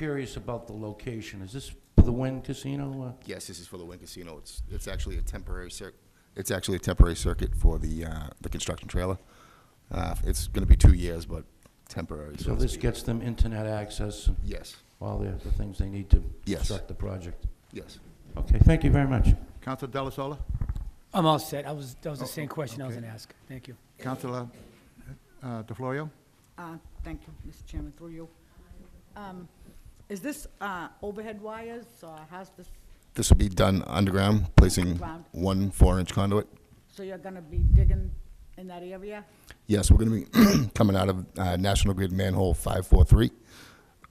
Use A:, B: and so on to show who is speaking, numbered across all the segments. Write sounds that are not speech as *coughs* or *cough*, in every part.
A: curious about the location. Is this for the Wynn Casino? uh,
B: Yes, this is for the Wynn Casino. It's, it's actually a temporary cir, it's actually a temporary circuit for the, uh, the construction trailer. Uh, it's gonna be two years, but temporary.
A: Uh, So
B: to
A: this
B: speak.
A: gets them internet access and
B: Yes,
A: all the the things they need to
B: Yes.
A: construct the project.
B: yes.
A: Okay, thank you very much.
C: Counselor Delasola?
D: I'm all set. I was, that was the same question I was gonna ask. Thank you.
C: Counselor uh, DeFlorio?
E: Uh, Thank you, Mr. Chairman, through you. Um, Is this uh, overhead wires, or how's this,
B: This will be done underground, placing
E: Underground.
B: one four-inch conduit.
E: so you're going to be digging in that area?
B: Yes, we're gonna be *clears throat* coming out of, uh, National Grid manhole five-four-three,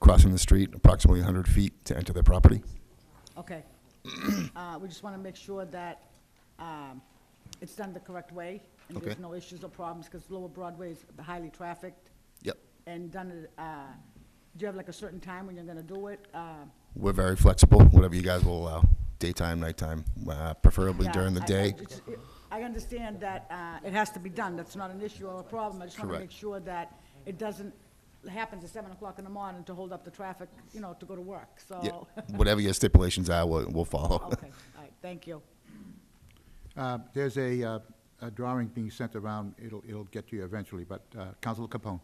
B: crossing the street approximately hundred feet to enter their property.
E: Okay. *coughs* Uh, We just want to make sure that um, it's done the correct way, and there's
B: Okay.
E: no issues or problems, because Lower Broadway is highly trafficked,
B: Yep.
E: and done, it, uh, do you have like a certain time when you're going to do it? Uh,
B: We're very flexible, whatever you guys will allow, daytime, nighttime, uh, preferably
E: Yeah,
B: during the
E: I- I
B: day.
E: just- I understand that uh, it has to be done, that's not an issue or a problem, I just want to
B: Correct.
E: make sure that it doesn't happen to seven o'clock in the morning to hold up the traffic, you know, to go to work, so.
B: Yeah,
F: Oh. *laughs*
E: *laughs* Okay,
B: Whatever your stipulations are, we'll, we'll follow.
E: all right, thank you.
C: Uh, There's a uh, a drawing being sent around, it'll, it'll get to you eventually, but uh, Counselor Capone?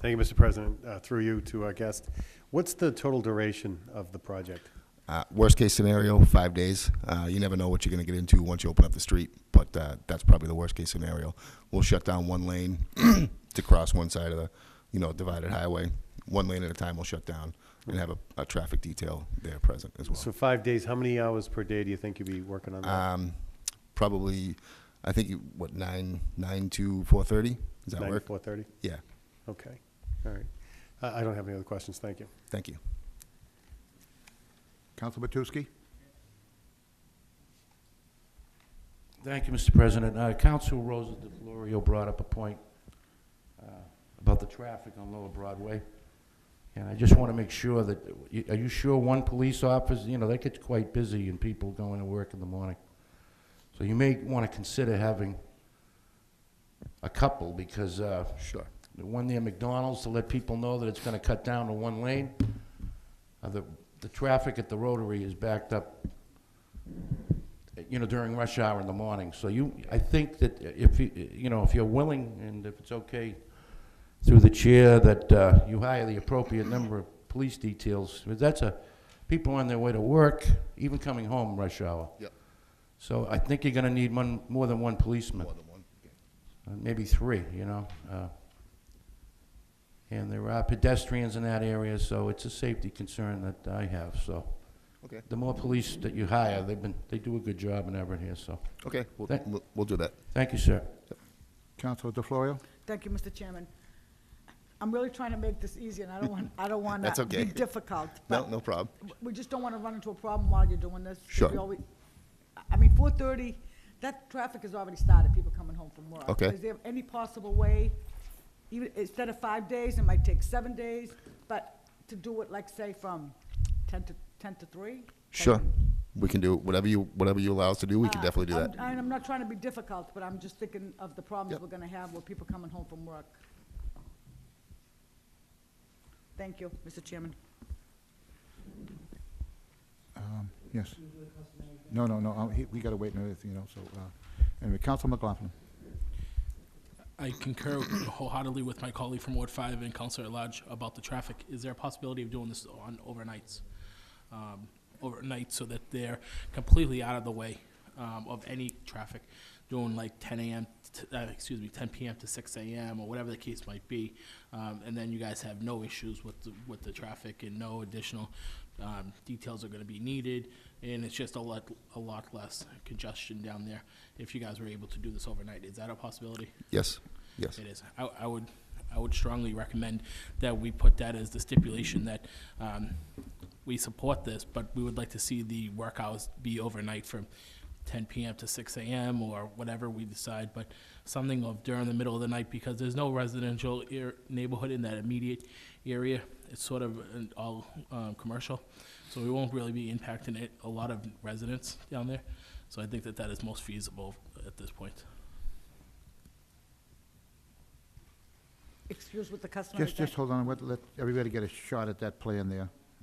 F: Thank you, Mr. President. Uh, Through you to our guest. What's the total duration of the project?
B: *laughs* Uh, worst case scenario, five days. Uh, you never know what you're going to get into once you open up the street, but uh, that's probably the worst case scenario. We'll shut down one lane *clears throat* to cross one side of the, you know, divided highway. One lane at a time we'll shut down and have a, a traffic detail there present as well.
F: So uh, five days, how many hours per day do you think you'd be working on that?
B: um, probably, I think, you- what, 9, 9 to 4.30? Does that
F: Nine to
B: work?
F: 4:30?
B: Yeah,
F: Okay, all right. I I don't have any other questions, thank you.
B: thank you.
C: Counselor Matusky?
A: Thank you, Mr. President. Uh, Council Rosa DeFlorio brought up a point uh, about the traffic on Lower Broadway, and I just want to make sure that, you- are you sure one police officer, you know, that gets quite busy and people going to work in the morning. So you may want to consider having a couple, because uh,
B: Sure.
A: the one near McDonald's to let people know that it's going to cut down to one lane. Uh, The, the traffic at the Rotary is backed up, you know, during rush hour in the morning. So you, I think that if, you you know, if you're willing and if it's okay through the chair, that uh, you hire the appropriate number of police details. But That's a, people on their way to work, even coming home rush hour.
B: Yep.
A: So I think you're going to need one, more than one policeman
B: More than one.
A: uh, maybe three, you know. uh, And there are pedestrians in that area, so it's a safety concern that I have, so.
B: Okay,
A: The more police that you hire, they've been, they do a good job in Everett here, so.
B: okay, we'll,
A: Thank-
B: we'll, we'll do that.
A: Thank you, sir.
C: Counselor DeFlorio?
E: Thank you, Mr. Chairman. I'm really trying to make this easy, and I don't want, I don't
B: *laughs*
E: want
B: That's
E: to
B: okay.
E: be difficult.
B: No,
E: but
B: no problem.
E: We just don't want to run into a problem while you're doing this. 'cause
B: Sure.
E: we always- I mean, four thirty, that traffic has already started, people coming home from work.
B: Okay.
E: Is there any possible way, even, instead of five days, it might take seven days, but to do it like, say, from ten to, ten to three? Uh,
B: Sure, we can do whatever you, whatever you allow us to do, we can definitely do
E: I'm-
B: that.
E: And I'm not trying to be difficult, but I'm just thinking of the problems
B: Yep.
E: we're gonna have with people coming home from work. Thank you, Mr. Chairman.
C: Yes. No, no, no, uh, he- we gotta wait another, you know, so, uh, anyway, Counselor McLaughlin?
G: I concur wholeheartedly with my colleague from Ward Five and Counselor at Large about the traffic. Is there a possibility of doing this on overnights? Um, Overnight so that they're completely out of the way um, of any traffic, doing like ten AM, t- uh, excuse me, ten PM to six AM or whatever the case might be. Um, And then you guys have no issues with, the- with the traffic and no additional um, details are gonna be needed. And it's just a lot, a lot less congestion down there if you guys were able to do this overnight. Is that a possibility?
B: Yes, yes.
G: It is. I, I would, I would strongly recommend that we put that as the stipulation that um, we support this, but we would like to see the work hours be overnight from 10 PM to 6 AM or whatever we decide, but something of during the middle of the night, because there's no residential ear- neighborhood in that immediate area. It's sort of an all um, commercial, so we won't really be impacting it, a lot of residents down there. So I think that that is most feasible at this point.
E: Excuse with the customer.
C: Just, just hold on, let, let everybody get a shot at that plan there.